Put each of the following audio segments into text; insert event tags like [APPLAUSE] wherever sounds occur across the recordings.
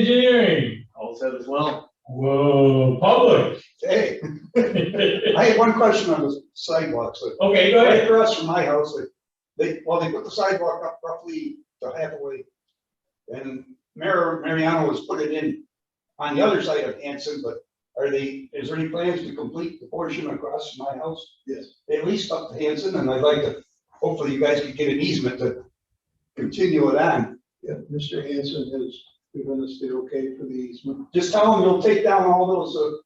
Engineering, All set as well? whoa, public. [LAUGHS] Hey, Okay, I had one question on the sidewalks. so- go Right ahead. across from my house, they- they, well, they put the sidewalk up roughly to halfway. And Mar- Mariano has put it in on the other side of Hanson, but are they, is there any plans to complete the portion across from my house? Yes. At least up to Hanson, and I'd like to, hopefully you guys can get an easement to continue it on. Yeah, Mr. Hanson has given us the okay for the easement. Just tell him he'll take down all those, uh,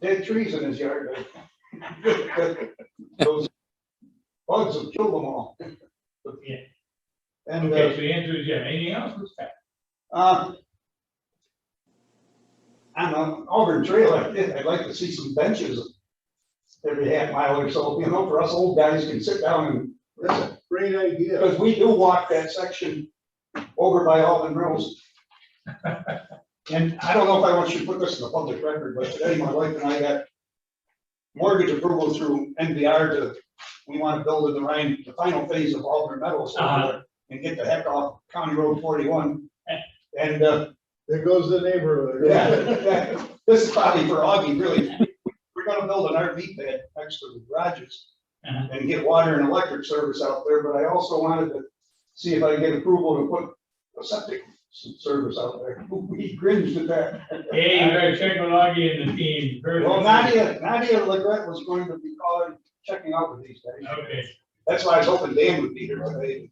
dead trees in his yard. [LAUGHS] Those Bugs will kill them all. Yeah. And, uh, Okay, so the answer is yeah. Anything else? Let's go. uh, on the Auburn Trail, I'd, I'd like to see some benches every half mile or so, you know, for us old guys can sit down and listen. Great idea. Because we do walk that section over by Auburn Mills. And I don't know if I want you to put this in the public record, but today my wife and I got mortgage approval through NBR to, we want to build in the rain, the final phase of Auburn Meadows Uh-huh. and get the heck off County Road forty-one. And, uh, There goes the neighborhood. yeah, [LAUGHS] yeah, this is probably for Augie, really. We're gonna build an RV pad next to the garages Uh-huh. and get water and electric service out there, but I also wanted to see if I could get approval to put a septic s- service out there. [LAUGHS] He cringed at that. Hey, you better check with Augie and the team. Very Well, good. Nadia, Nadia Legret was going to be calling, checking out with these guys. Okay, That's why I was hoping Dan would be here today.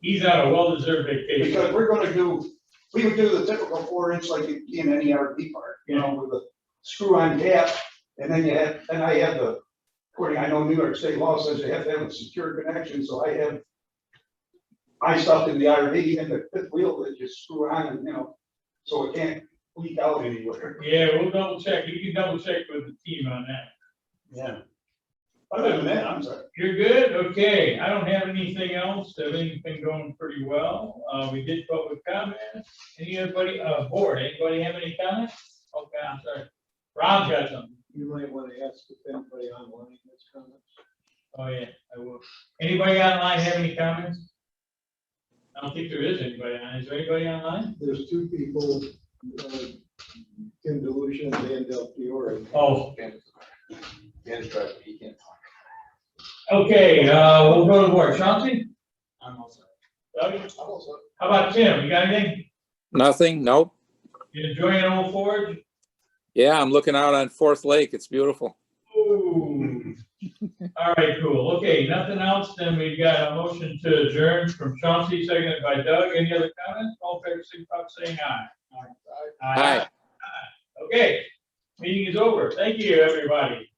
he's on a well-deserved vacation. Because we're gonna do, we would do the typical four inch like you see in any RV park, you know, with a screw on cap. And then you have, and I have the, according, I know New York State law says you have to have a secure connection, so I have my stuff in the RV and the fifth wheel that you screw on and, you know, so it can't leak out anywhere. Yeah, we'll double check. You can double check with the team on that. Yeah. Other than that, I'm sorry. You're good? Okay, I don't have anything else. Everything's been going pretty well. Uh, we did public comments. Anybody, uh, board, anybody have any comments? Okay, I'm sorry. Rob's got something. You might want to ask if anybody online has comments. Oh, yeah, I will. Anybody online have any comments? I don't think there is anybody on. Is there anybody online? There's two people, uh, Tim Delusion and Del Fiore. Oh, Dan's driving, he can't talk. okay, uh, we'll go to board. Chauncey? I'm also. Doug? How about Tim? You got anything? Nothing, nope. You enjoying Old Forge? Yeah, I'm looking out on Fourth Lake. It's beautiful. Ooh. All right, cool. Okay, nothing else, then we've got a motion to adjourn from Chauncey, seconded by Doug. Any other comments? All fair signify by saying aye. Hi. Okay, meeting is over. Thank you, everybody.